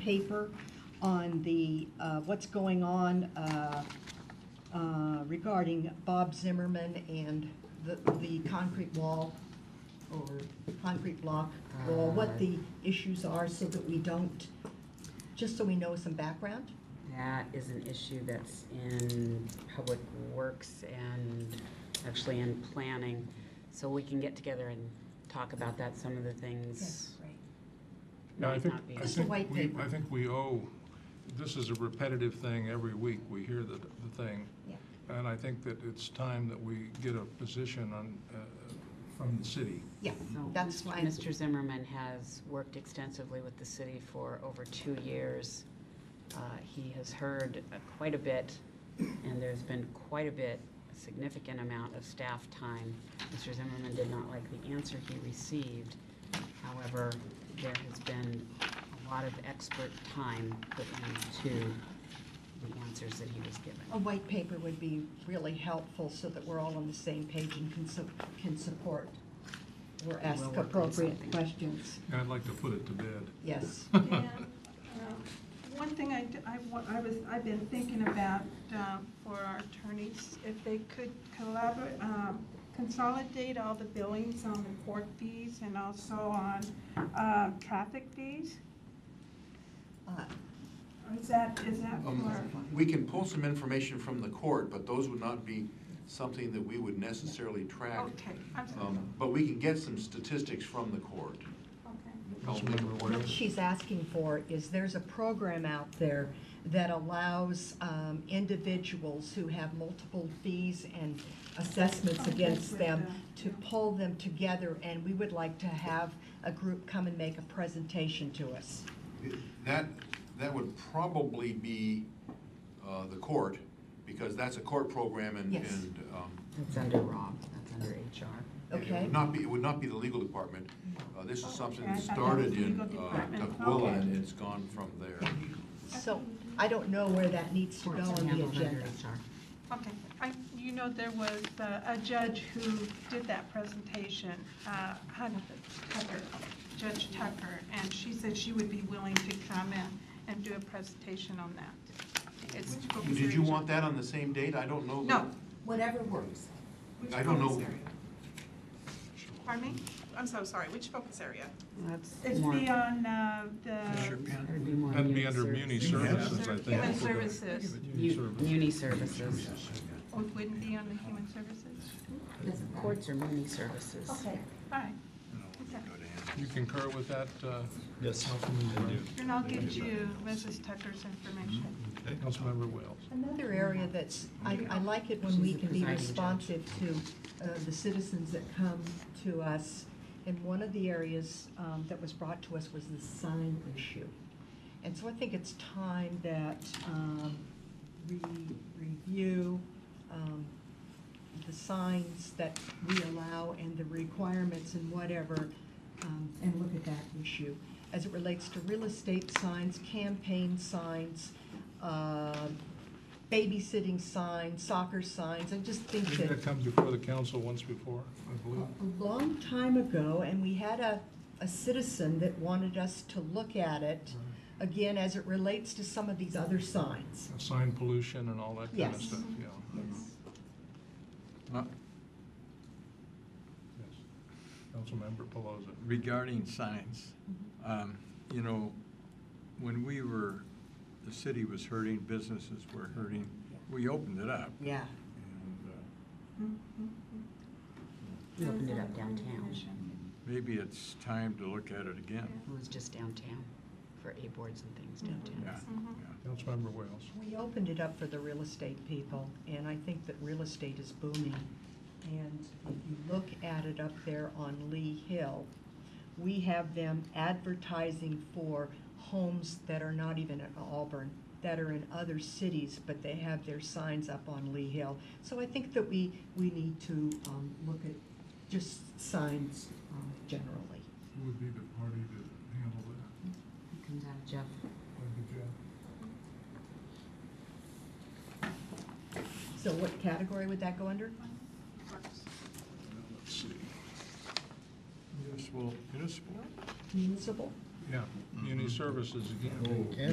paper on the, uh, what's going on uh, uh, regarding Bob Zimmerman and the, the concrete wall or concrete block wall, Ah. what the issues are so that we don't, just so we know some background. That is an issue that's in Public Works and actually in planning. So we can get together and talk about that, some of the things. right. Yeah, I might think, not be. I Just a white think we, paper. I think we owe, this is a repetitive thing every week, we hear the, the thing. Yeah. And I think that it's time that we get a position on, uh, from the city. Yeah, So that's Mr. why, Mr. Zimmerman has worked extensively with the city for over two years. Uh, He has heard uh, quite a bit, and there's been quite a bit, a significant amount of staff time. Mr. Zimmerman did not like the answer he received. However, there has been a lot of expert time put into the answers that he was given. a white paper would be really helpful so that we're all on the same page and can, su- can support or ask We'll work on appropriate something. questions. And I'd like to put it to bed. Yes. And, um, One thing I, d- I wa- I was, I've been thinking about um, for our attorneys, if they could collaborate, um, consolidate all the billings on the court fees and also on um, traffic fees? Uh, Or Is that, is that for, Um, We can pull some information from the court, but those would not be something that we would necessarily track. okay, I'm sorry, Um, But we can get some statistics from the court. Um, okay. Councilmember What Ware? she's asking for is there's a program out there that allows um, individuals who have multiple fees and assessments Okay, against with them the- to yeah. pull them together, and we would like to have a group come and make a presentation to us. That, that would probably be uh, the court, because that's a court program and, Yes. and um, That's under Rob, that's under HR. it Okay. would not be, it would not be the legal department. Uh, This is something Okay, I that thought that was started in legal uh, department. Tukwila, Okay. and it's gone from there. So I don't know where that needs to go Courts are on the handled under agenda. HR. Okay, I, you know, there was uh, a judge who did that presentation, uh, Hun- Tucker, Judge Tucker, and she said she would be willing to come in and do a presentation on that. It's for Did you research. want that on the same date? I don't know. No, Whatever works. Which I don't know. focus area? pardon me? I'm so sorry, which focus area? That's It's more, the on uh, the that would be more. That'd be muni under muni services. services, I think. human services. Muni Mu- services. Muni services. Oh, It wouldn't be on the human services? Doesn't matter. Courts are muni services. Okay. Fine. Okay. You concur with that? uh, Yes. Councilmember Ware? And I'll get you Mrs. Tucker's information. Councilmember Wales? Another area that's, I, I like it when we She's the can be presiding judge. responsive to uh, the citizens that come to us. And one of the areas um, that was brought to us was the sign issue. And so I think it's time that um, we review um, the signs that we allow and the requirements and whatever, um, and look at that issue. As it relates to real estate signs, campaign signs, um, babysitting signs, soccer signs, I just think Didn't that that come before the council once before, I believe? a long time ago, and we had a, a citizen that wanted us to look at it, again, as it relates to some of these other signs. Sign pollution and all that kind of Yes. stuff, yeah. Yes. Not- Yes. Councilmember Pelosi? Regarding signs, um, you know, when we were, the city was hurting, businesses were hurting, we opened it up. Yeah. And uh, We opened it up downtown. Maybe it's time to look at it again. It was just downtown for A boards and things downtown. Yeah, Mhm. yeah. Councilmember Wales? We opened it up for the real estate people, and I think that real estate is booming. And if you look at it up there on Lee Hill, we have them advertising for homes that are not even in Auburn, that are in other cities, but they have their signs up on Lee Hill. So I think that we, we need to um, look at just signs um, generally. Who would be the party to handle that? It Comes out of Jeff. Like the Jeff? So what category would that go under? Now, Let's see. Municipal, municipal? Municipal? Yeah, Mm-hmm. yeah, muni services again. Oh.